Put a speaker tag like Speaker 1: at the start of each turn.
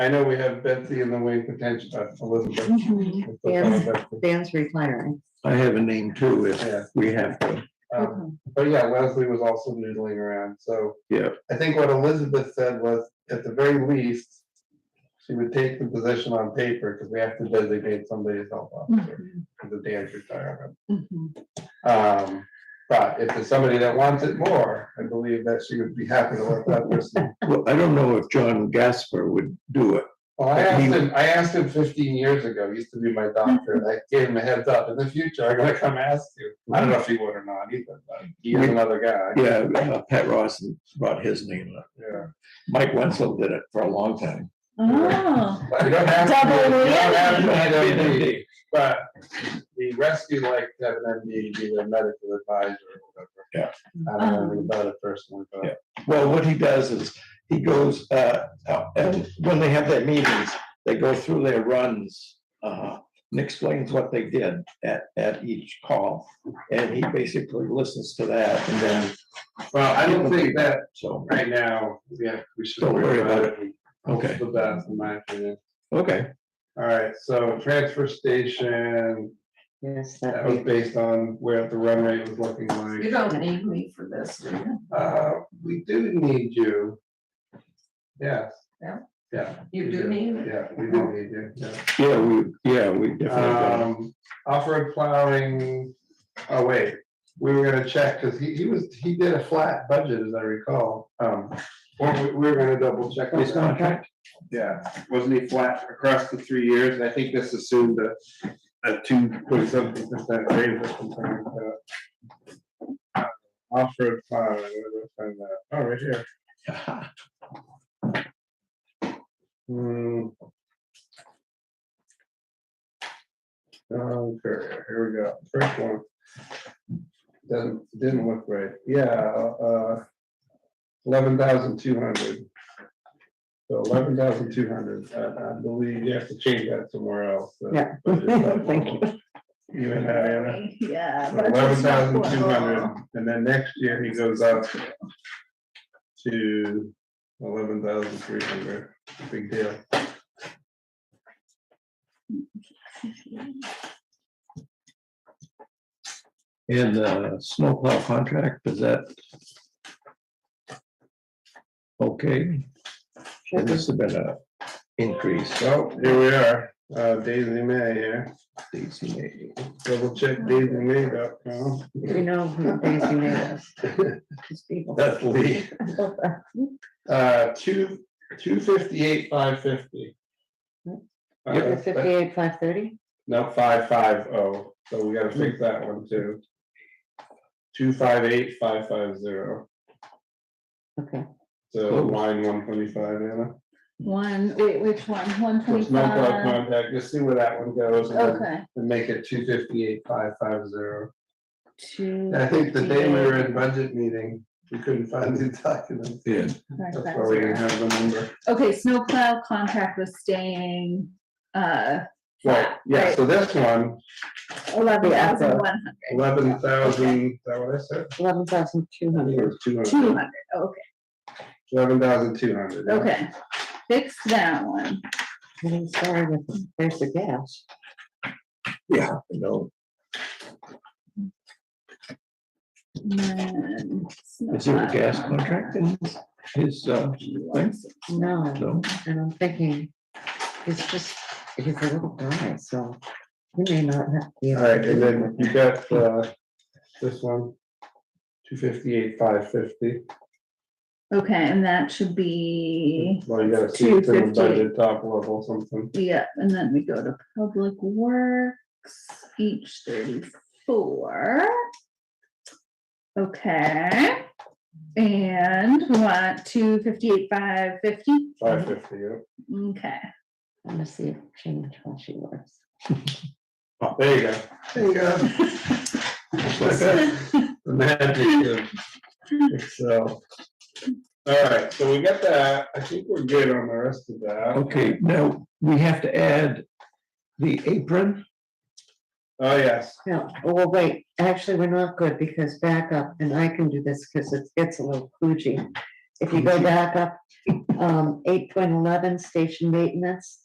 Speaker 1: I know we have Betsy in the way potential, uh, Elizabeth.
Speaker 2: Dan's, Dan's retiring.
Speaker 3: I have a name too,
Speaker 1: Yeah.
Speaker 3: if we have to.
Speaker 1: Um, But yeah, Leslie was also noodling around, so.
Speaker 3: Yeah.
Speaker 1: I think what Elizabeth said was, at the very least, she would take the position on paper, because we have to designate somebody as health
Speaker 2: Mm-hmm.
Speaker 1: officer, because of Dan's retirement.
Speaker 4: Mm-hmm.
Speaker 2: Mhm.
Speaker 1: Um, but if there's somebody that wants it more, I believe that she would be happy to let that person.
Speaker 3: Well, I don't know if John Gasper would do it.
Speaker 1: Well, Oh, I
Speaker 3: But he-
Speaker 1: asked him, I asked him fifteen years ago, he used to be my doctor, and I gave him a heads up, in the future, I'm gonna come ask you. I don't know if he would or not either, but he is another guy,
Speaker 3: Yeah, uh, Pat Ross brought his name up.
Speaker 1: yeah.
Speaker 3: Mike Wenzel did it for a long time.
Speaker 4: Oh,
Speaker 1: You don't have to,
Speaker 4: Double
Speaker 1: you don't have to have an MD,
Speaker 3: Yeah,
Speaker 1: but the rescue like to have an MD, be their medical advisor or whatever.
Speaker 3: Yeah.
Speaker 1: I don't
Speaker 2: Uh,
Speaker 1: know anything about it personally,
Speaker 3: Yeah.
Speaker 1: but.
Speaker 3: Well, what he does is, he goes, uh, uh, and when they have their meetings, they go through their runs. uh, And explains what they did at, at each call, and he basically listens to that and then,
Speaker 1: Well, I don't think that
Speaker 3: so,
Speaker 1: right now, yeah, we should.
Speaker 3: Don't worry about it.
Speaker 1: Most
Speaker 3: Okay.
Speaker 1: of The best in my opinion.
Speaker 3: okay.
Speaker 1: All right, so transfer station,
Speaker 2: Yes,
Speaker 1: that
Speaker 2: that
Speaker 1: was
Speaker 2: we-
Speaker 1: based on where the run rate was looking like.
Speaker 4: you don't need me for this, do you?
Speaker 1: Uh, we do need you. Yes.
Speaker 4: Yeah.
Speaker 1: Yeah.
Speaker 4: You
Speaker 1: we
Speaker 4: do need me?
Speaker 1: Yeah, we do need you, yeah.
Speaker 3: Yeah, we, yeah, we definitely,
Speaker 1: Um, off-road plowing, oh wait, we were gonna check, cause he, he was, he did a flat budget, as I recall. Um, weren't we, we were gonna double check. on
Speaker 3: his
Speaker 1: that.
Speaker 3: contract,
Speaker 1: Yeah, wasn't he flat across the three years? I think this assumed a, a two point something percent raise or something like that. Off-road plowing, where did I find that? oh, right here. Hmm. Okay, here we go, first one. Doesn't, didn't look right, yeah, uh, eleven thousand two hundred. So eleven thousand two hundred, I, I believe you have to change that somewhere else. uh,
Speaker 2: Yeah.
Speaker 1: but it's-
Speaker 2: Thank
Speaker 1: You and Diana.
Speaker 4: Yeah. but it's
Speaker 1: Eleven
Speaker 4: just not
Speaker 1: thousand two hundred,
Speaker 4: what-
Speaker 1: and then next year he goes up to eleven thousand three hundred, big deal.
Speaker 3: and the snowplow contract, is that? Okay, and this has been a increase,
Speaker 1: Well, here we are, uh, Daisy May here,
Speaker 3: DCA.
Speaker 1: double check daisymay.com.
Speaker 2: we know who Daisy made us. These people.
Speaker 3: That's Lee.
Speaker 1: Uh, two, two fifty-eight, five fifty. Uh,
Speaker 2: Is it Fifty-eight, five thirty?
Speaker 1: No, five, five, oh, so we gotta fix that one too. Two, five, eight, five, five, zero,
Speaker 2: Okay.
Speaker 1: so
Speaker 3: Close.
Speaker 1: line one twenty-five, Anna.
Speaker 4: One, wait, which one? One
Speaker 1: Which number of
Speaker 4: twenty-five?
Speaker 1: contact, just see where that one goes and then-
Speaker 4: Okay.
Speaker 1: and make it two fifty-eight, five, five, zero.
Speaker 4: Two.
Speaker 1: I think the day we were in budget meeting, we couldn't find the documents.
Speaker 3: Yeah.
Speaker 4: five,
Speaker 1: That's
Speaker 4: five,
Speaker 1: why we didn't
Speaker 4: zero.
Speaker 1: have the number.
Speaker 4: Okay, snowplow contract was staying, uh,
Speaker 1: Right, yeah, so this one,
Speaker 4: eleven
Speaker 2: Yeah, so-
Speaker 4: thousand one
Speaker 1: eleven thousand, is that what I said?
Speaker 2: Eleven thousand two
Speaker 1: I think it
Speaker 2: hundred.
Speaker 1: was two
Speaker 4: hundred,
Speaker 1: hundred,
Speaker 4: two hundred, okay,
Speaker 1: eleven thousand two hundred.
Speaker 4: okay. Fix that one.
Speaker 2: I'm sorry, but there's the gas.
Speaker 3: Yeah, no,
Speaker 4: And then
Speaker 3: is there a
Speaker 4: snowplow
Speaker 3: gas contract in his, uh, thing?
Speaker 2: No,
Speaker 3: No,
Speaker 2: and I'm thinking, it's just, he's a little guy, so he may not have. to be able
Speaker 1: All
Speaker 2: to
Speaker 1: right,
Speaker 2: do
Speaker 1: and then
Speaker 2: it.
Speaker 1: you got, uh, this one, two fifty-eight, five fifty.
Speaker 4: Okay, and that should be,
Speaker 1: Well, you gotta see it in the
Speaker 4: 250.
Speaker 1: budget top level something.
Speaker 4: yeah, and then we go to public works, each thirty-four. Okay, and we want two fifty-eight, five fifty,
Speaker 1: Five fifty, yeah.
Speaker 4: okay.
Speaker 2: Let me see if change how she works.
Speaker 1: Oh, There you go. There you go. Just like that. The magic of Excel. All right, so we got that. I think we're good on the rest of that.
Speaker 3: okay, now, we have to add the apron,
Speaker 1: Oh, yes.
Speaker 2: No, well, wait, actually, we're not good because back up, and I can do this because it gets a little kludgy. if you go back up, um, eight point eleven, station maintenance.